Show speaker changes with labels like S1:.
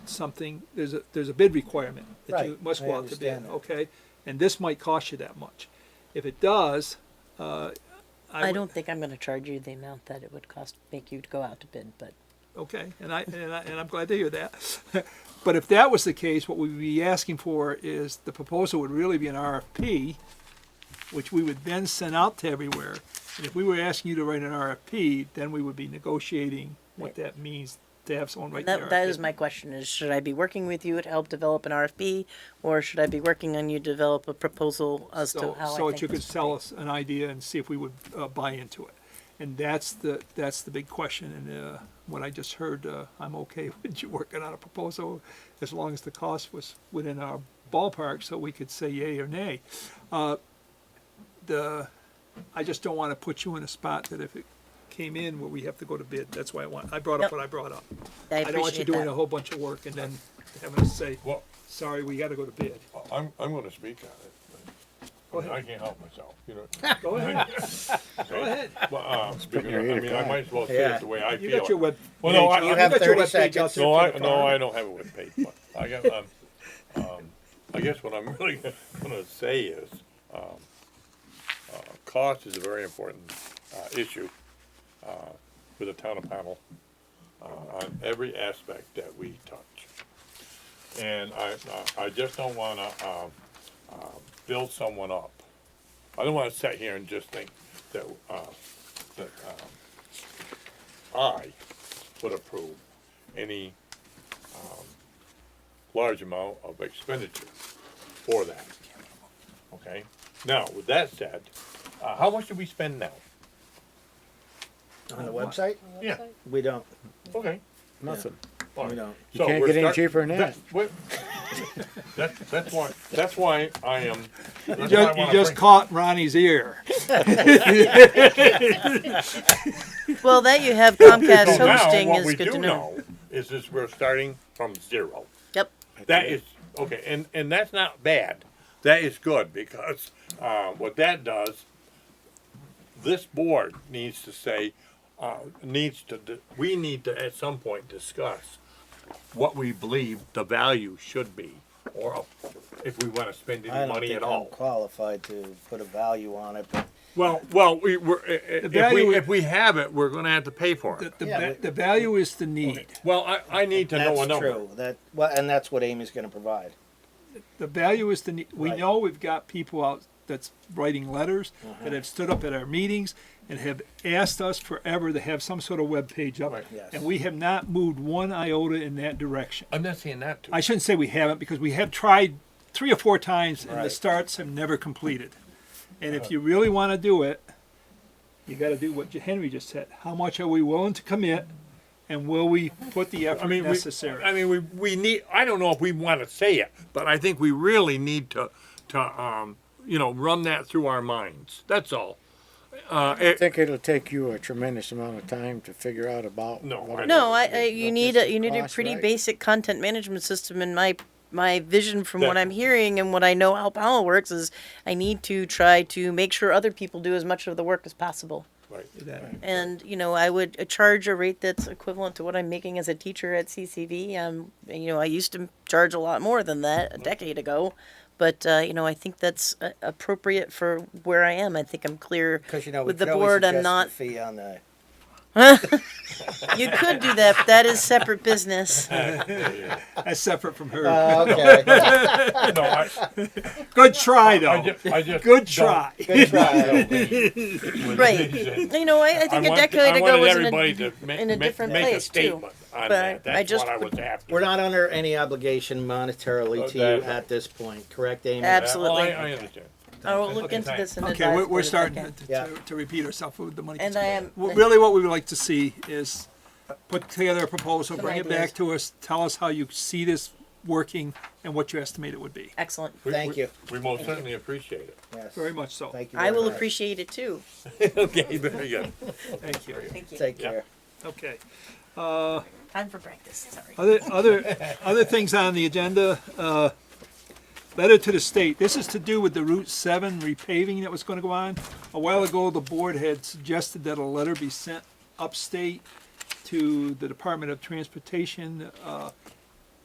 S1: something, there's a, there's a bid requirement that you
S2: Right,
S1: must
S2: I
S1: go out to bid,
S2: understand that.
S1: okay? And this might cost you that much. If it does, uh, I
S3: I
S1: would-
S3: don't think I'm gonna charge you the amount that it would cost, make you to go out to bid, but
S1: Okay, and I, and I, and I'm glad to hear that. But if that was the case, what we'd be asking for is the proposal would really be an RFP, which we would then send out to everywhere. And if we were asking you to write an RFP, then we would be negotiating what
S3: Right.
S1: that means to have someone write the
S3: that, that is
S1: RFP.
S3: my question is, should I be working with you to help develop an RFP? Or should I be working on you to develop a proposal as to
S1: So,
S3: how I
S1: so
S3: think?
S1: that you could
S3: this-
S1: sell us an idea and see if we would, uh, buy into it. And that's the, that's the big question, and, uh, what I just heard, uh, I'm okay with you working on a proposal as long as the cost was within our ballpark, so we could say yay or nay. Uh, the, I just don't wanna put you in a spot that if it came in where we have to go to bid, that's why I want, I brought up
S3: Yep.
S1: what I brought up.
S3: I
S1: I don't want you
S3: appreciate
S1: doing a
S3: that.
S1: whole bunch of work and then having to say,
S4: Well,
S1: sorry, we gotta go to bid.
S4: I'm, I'm gonna speak on it. but-
S1: Go
S4: I mean, I
S1: ahead,
S4: can't help myself, you know.
S1: go ahead, go ahead.
S4: But, uh, because,
S5: your ear
S4: I
S5: to
S4: mean, I
S5: God.
S4: might as well say
S2: Yeah.
S4: it the way I
S1: You
S4: feel.
S1: got your
S4: it.
S1: web.
S4: Well, no,
S1: page
S4: I-
S1: out-
S4: you
S2: have
S1: got your
S2: 30
S1: web page out
S2: seconds.
S1: there
S4: No,
S1: for
S4: I,
S1: the
S4: no,
S1: farm.
S4: I don't have it with paper. I got, um, um, I guess what I'm really gonna say is, um, uh, cost is a very important, uh, issue, uh, for the town of Pownell, uh, on every aspect that we touch. And I, I I just don't wanna, um, uh, build someone up. I don't wanna sit here and just think that, uh, that, uh, um, I would approve any um, large amount of expenditure for that. Okay, now, with that said, uh, how much do we spend now?
S2: On the website?
S4: Yeah,
S2: We don't,
S4: okay.
S5: Nothing.
S4: all
S2: we
S4: right.
S2: don't.
S5: You
S4: So
S5: can't
S4: we're
S5: get any
S4: start-
S5: cheaper than that.
S4: that- wait. That, that's why, that's why I am.
S1: You
S4: that's why I
S1: just, you
S4: wanna
S1: just
S4: bring-
S1: caught Ronnie's ear.
S3: Well, that you have
S4: So
S3: Comcast
S4: now,
S3: hosting
S4: what
S3: is
S4: we
S3: good
S4: do
S3: to know.
S4: know is this, we're starting from zero.
S3: Yep,
S4: That is, okay, and, and that's not bad. That is good, because, uh, what that does, this board needs to say, uh, needs to, d- we need to at some point discuss what we believe the value should be, or if we wanna spend
S2: I
S4: any
S2: don't
S4: money
S2: think
S4: at
S2: I'm
S4: all.
S2: qualified to put a value on it, but
S4: Well, well, we, we're, i- i- if
S1: value-
S4: we, if we have it, we're gonna have to pay for
S1: The,
S4: it.
S1: the,
S2: Yeah,
S1: va-
S2: but-
S1: the value is the need.
S4: Well, I, I need to know a
S2: that's
S4: number.
S2: true. That, well, and that's what Amy's gonna provide.
S1: The value is the need. We
S2: Right.
S1: know we've got people out that's writing letters that have stood up at our meetings and have asked us forever to have some sort of web page up.
S4: Right.
S2: Yes.
S1: And we have not moved one iota in that direction.
S4: I'm not saying that to.
S1: I shouldn't say we haven't because we have tried three or four times and the
S2: Right.
S1: starts have never completed. And
S4: Uh-huh.
S1: if you really want to do it, you got to do what Henry just said. How much are we willing to commit and will we put the effort
S4: I mean,
S1: necessary?
S4: We, I mean, we, we need. I don't know if we want to say it, but I think we really need to to um, you know run that through our minds. That's all. Uh,
S5: I
S4: it,
S5: think it'll take you a tremendous amount of time to figure out about.
S4: No,
S5: what
S4: I
S5: it
S3: no, I,
S5: is.
S3: I, you
S5: Not
S3: need
S5: just
S3: a, you need a
S5: cost,
S3: pretty
S5: right?
S3: basic content management system and my, my vision from what
S4: That-
S3: I'm hearing and what I know how Powell works is I need to try to make sure other people do as much of the work as possible.
S4: right.
S1: That-
S3: And, you know, I would uh, charge a rate that's equivalent to what I'm making as a teacher at CCV. Um, and, you know, I used to charge a lot more than that a decade ago. But, uh, you know, I think that's uh, appropriate for where I am. I think I'm clear
S2: Cause you know, we
S3: with the
S2: could always
S3: board. I'm
S2: adjust the
S3: not.
S2: fee on the,
S3: You could do that, but that is separate business.
S1: That's separate from her.
S4: Uh,
S2: oh, okay,
S4: No, I,
S1: Good try, though.
S4: I just, I just
S1: Good
S4: don't-
S1: try.
S2: good try.
S4: don't think with
S3: Right.
S4: these, uh,
S3: You know, I, I
S4: I
S3: think a
S4: want-
S3: decade
S4: I
S3: ago
S4: wanted
S3: was an
S4: everybody to ma-
S3: in a
S4: ma-
S3: different
S4: make
S3: place,
S4: a
S3: too.
S4: statement on
S3: But
S4: that. That's
S3: I just
S4: what I
S3: would-
S4: was after.
S2: We're not under any obligation monetarily to you
S4: Okay.
S2: at this point, correct, Amy?
S4: That- well, I,
S3: absolutely.
S4: I understand.
S3: I will look
S4: Okay,
S3: into
S4: thanks.
S3: this and
S1: Okay,
S3: advise
S1: we're, we're
S3: the board if I
S1: starting
S3: can.
S1: to,
S2: Yeah.
S1: to, to repeat ourselves with the money.
S3: And I am.
S1: Well, Really, what we would like to see is put together a proposal,
S3: Some
S1: bring it
S3: ideas.
S1: back to us, tell us how you see this working and what you estimate it would be.
S3: Excellent.
S4: We-
S2: Thank
S4: we-
S2: you.
S4: We most certainly appreciate it.
S2: Yes.
S1: Very much so.
S2: Thank you.
S3: I
S2: very
S3: will
S2: much.
S3: appreciate it too.
S4: okay, very good.
S1: Thank you.
S3: Thank you.
S2: Take
S4: Yeah.
S2: care.
S1: Okay.
S3: Time for practice. Sorry.
S1: Other, other, other things on the agenda, uh, letter to the state, this is to do with the Route seven repaving that was gonna go on. A while ago, the board had suggested that a letter be sent upstate to the Department of Transportation, uh,